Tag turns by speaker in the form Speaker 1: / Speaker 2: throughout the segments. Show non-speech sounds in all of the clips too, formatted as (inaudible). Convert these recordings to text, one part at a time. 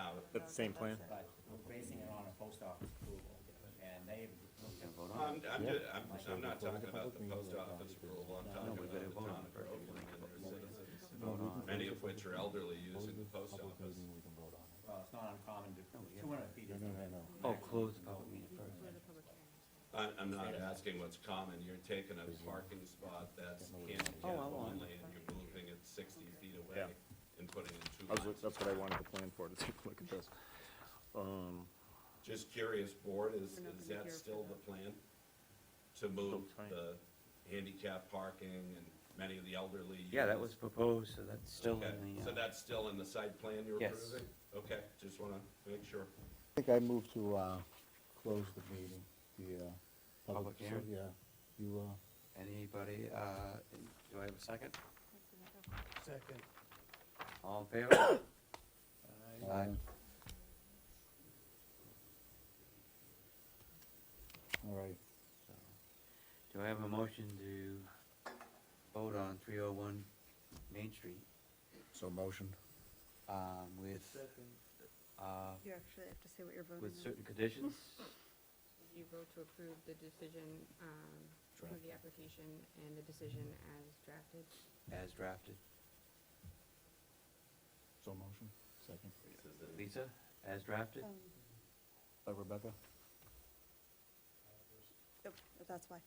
Speaker 1: That's the same plan?
Speaker 2: but we're basing it on a post office approval, and they've looked at
Speaker 3: I'm, I'm, ju- I'm, I'm not talking about the post office rule, I'm talking about the town of Groveland and their citizens, many of which are elderly using the post office.
Speaker 2: Well, it's not uncommon to, two hundred feet is the minimum.
Speaker 4: Oh, close the public meeting first.
Speaker 3: I'm, I'm not asking what's common, you're taking a parking spot that's handicap
Speaker 4: Oh, I'm on.
Speaker 3: only, and you're moving it sixty feet away and putting in two
Speaker 1: I was,
Speaker 3: lanes.
Speaker 1: that's what I wanted to plan for, to take a look at this. Um,
Speaker 3: Just curious, board, is,
Speaker 5: We're not
Speaker 3: is
Speaker 5: gonna
Speaker 3: that
Speaker 5: hear
Speaker 3: still
Speaker 5: for
Speaker 3: the plan? To move
Speaker 1: fine.
Speaker 3: the handicap parking and many of the elderly?
Speaker 4: Yeah, that
Speaker 3: use?
Speaker 4: was proposed, so that's still
Speaker 3: Okay,
Speaker 4: in the,
Speaker 3: So
Speaker 4: uh,
Speaker 3: that's still in the site plan you're
Speaker 4: Yes.
Speaker 3: approving? Okay, just wanna make sure.
Speaker 6: I think I move to, uh, close the meeting, the, uh.
Speaker 4: Public hearing?
Speaker 6: Yeah, you, uh.
Speaker 4: anybody, uh, do I have a second?
Speaker 7: Second.
Speaker 4: All in favor?
Speaker 6: uh, All right,
Speaker 4: Do I have a motion to vote on three oh one Main Street,
Speaker 6: so motion.
Speaker 4: um, with,
Speaker 7: Second.
Speaker 4: uh,
Speaker 5: You actually have to say what you're voting
Speaker 4: with
Speaker 5: on.
Speaker 4: certain conditions?
Speaker 5: You vote to approve the decision, um, or the application and the decision as drafted.
Speaker 4: As drafted.
Speaker 6: So motion, second.
Speaker 4: Lisa, as
Speaker 5: Um,
Speaker 4: drafted?
Speaker 6: By Rebecca?
Speaker 8: Yep, that's
Speaker 5: (laughs)
Speaker 8: why.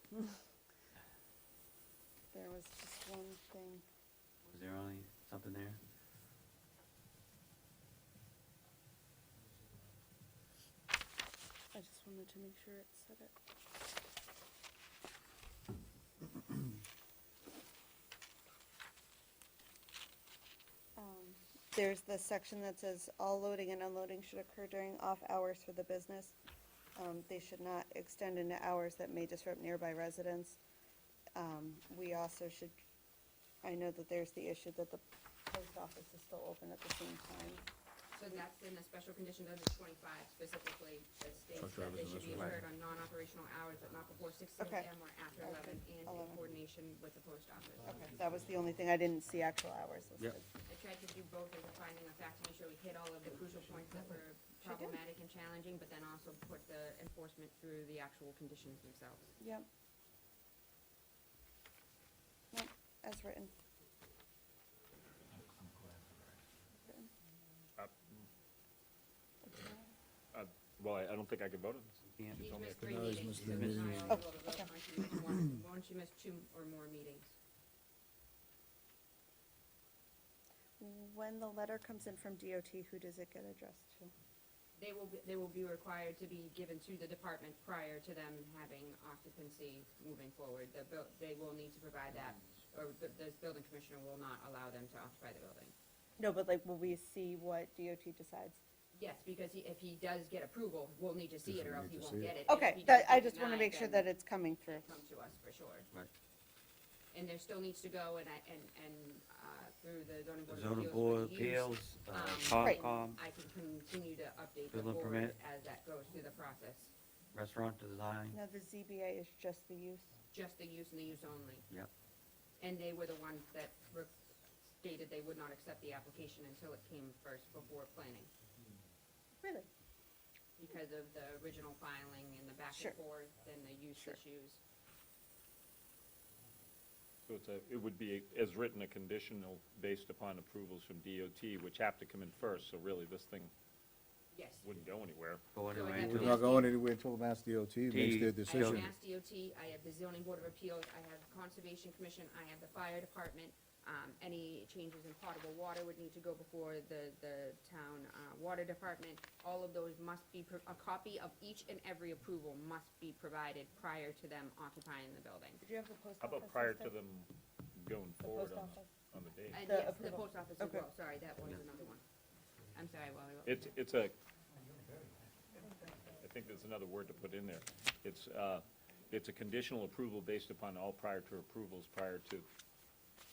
Speaker 8: There was just one thing.
Speaker 4: Was there only something there?
Speaker 8: I just wanted to make sure it said it. Um, There's the section that says all loading and unloading should occur during off hours for the business. Um, they should not extend into hours that may disrupt nearby residents. Um, we also should, I know that there's the issue that the post office is still open at the same time.
Speaker 5: So that's in the special condition under twenty-five specifically, that states
Speaker 6: Truck
Speaker 5: that
Speaker 6: drivers
Speaker 5: they
Speaker 6: and
Speaker 5: should be
Speaker 6: those
Speaker 5: occurred on non-operational hours, but not before six
Speaker 8: Okay.
Speaker 5: AM or after
Speaker 8: Okay,
Speaker 5: eleven, and in
Speaker 8: 11.
Speaker 5: coordination with the post office.
Speaker 8: Okay, that was the only thing, I didn't see actual hours listed.
Speaker 5: I tried to do both as a finding of fact to make sure we hit all of the crucial points that were problematic and challenging, but then also put the enforcement through the actual conditions themselves.
Speaker 8: Yep. Yep, as written. Written.
Speaker 1: uh, Well, I, I don't think I could vote on this.
Speaker 4: Can't-
Speaker 5: She's missed
Speaker 1: to-
Speaker 5: three
Speaker 6: No, he's missed
Speaker 5: meetings, so
Speaker 6: the
Speaker 5: it's not
Speaker 6: meeting.
Speaker 5: eligible
Speaker 8: Oh,
Speaker 5: to vote
Speaker 8: okay.
Speaker 5: once you miss (clears throat) one, once you miss two or more meetings.
Speaker 8: When the letter comes in from DOT, who does it get addressed to?
Speaker 5: They will, be- they will be required to be given to the department prior to them having occupancy moving forward. The buil, they will need to provide that, or the, the building commissioner will not allow them to occupy the building.
Speaker 8: No, but like, will we see what DOT decides?
Speaker 5: Yes, because he, if he does get approval, we'll need to see it or else he won't get it. And if
Speaker 8: Okay,
Speaker 5: he
Speaker 8: that,
Speaker 5: does
Speaker 8: I
Speaker 5: get
Speaker 8: just wanna
Speaker 5: denied,
Speaker 8: make sure
Speaker 5: then
Speaker 8: that it's coming through.
Speaker 5: Come to us for sure.
Speaker 4: Right.
Speaker 5: And there still needs to go and I, and, and, uh, through the zoning board of appeals.
Speaker 4: Zoning
Speaker 5: for
Speaker 4: board
Speaker 5: use,
Speaker 4: appeals, uh,
Speaker 5: um,
Speaker 8: Right.
Speaker 4: Concom,
Speaker 5: I can continue to update the
Speaker 4: Building
Speaker 5: board
Speaker 4: permit.
Speaker 5: as that goes through the process,
Speaker 4: restaurant design,
Speaker 8: Now, the ZBA is just the use.
Speaker 5: just the use and the use only.
Speaker 4: Yep.
Speaker 5: And they were the ones that re- stated they would not accept the application until it came first before planning,
Speaker 8: Really?
Speaker 5: because of the original filing and the back
Speaker 8: Sure.
Speaker 5: and forth and the use
Speaker 8: Sure.
Speaker 5: issues.
Speaker 1: So it's a, it would be, as written, a conditional based upon approvals from DOT, which have to come in first, so really this thing
Speaker 5: Yes.
Speaker 1: wouldn't go anywhere.
Speaker 4: going
Speaker 5: So I
Speaker 4: away
Speaker 5: have
Speaker 6: We're
Speaker 4: to
Speaker 5: to
Speaker 4: the
Speaker 5: Yeah.
Speaker 6: not going anywhere until Mass DOT makes their
Speaker 4: D-
Speaker 5: I have
Speaker 6: decision.
Speaker 5: Mass DOT, I have the zoning board of appeals, I have conservation commission, I have the fire department. Um, any changes in potable water would need to go before the, the town, uh, water department. All of those must be, pro- a copy of each and every approval must be provided prior to them occupying the building.
Speaker 8: Did you have the post office?
Speaker 1: How about prior to
Speaker 8: listed?
Speaker 1: them going
Speaker 8: The
Speaker 1: forward
Speaker 8: post
Speaker 1: on,
Speaker 8: office.
Speaker 1: on the date?
Speaker 5: And
Speaker 8: The
Speaker 5: yes, the
Speaker 8: approval.
Speaker 5: post office as
Speaker 8: Okay.
Speaker 5: well, sorry, that one is another one. I'm sorry, Wally. what was
Speaker 1: It's,
Speaker 5: that?
Speaker 1: it's a, I think there's another word to put in there. It's, uh, it's a conditional approval based upon all prior to approvals, prior to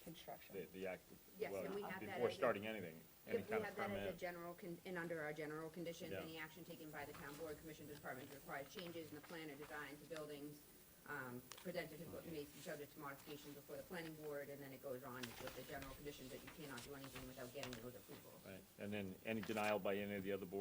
Speaker 8: Construction.
Speaker 1: the, the act,
Speaker 5: Yes,
Speaker 1: well,
Speaker 5: and we have that
Speaker 1: before
Speaker 5: as a-
Speaker 1: starting anything,
Speaker 5: Yep,
Speaker 1: any kind
Speaker 5: We
Speaker 1: of
Speaker 5: have that as a
Speaker 1: permit.
Speaker 5: general, con- and under our general conditions,
Speaker 1: Yeah.
Speaker 5: any action taken by the town board, commission, department requires changes in the plan or design to buildings, um, presented to, may be subject to modification before the planning board, and then it goes on with the general conditions that you cannot do anything without getting those approvals.
Speaker 1: Right, and then any denial by any of the other boards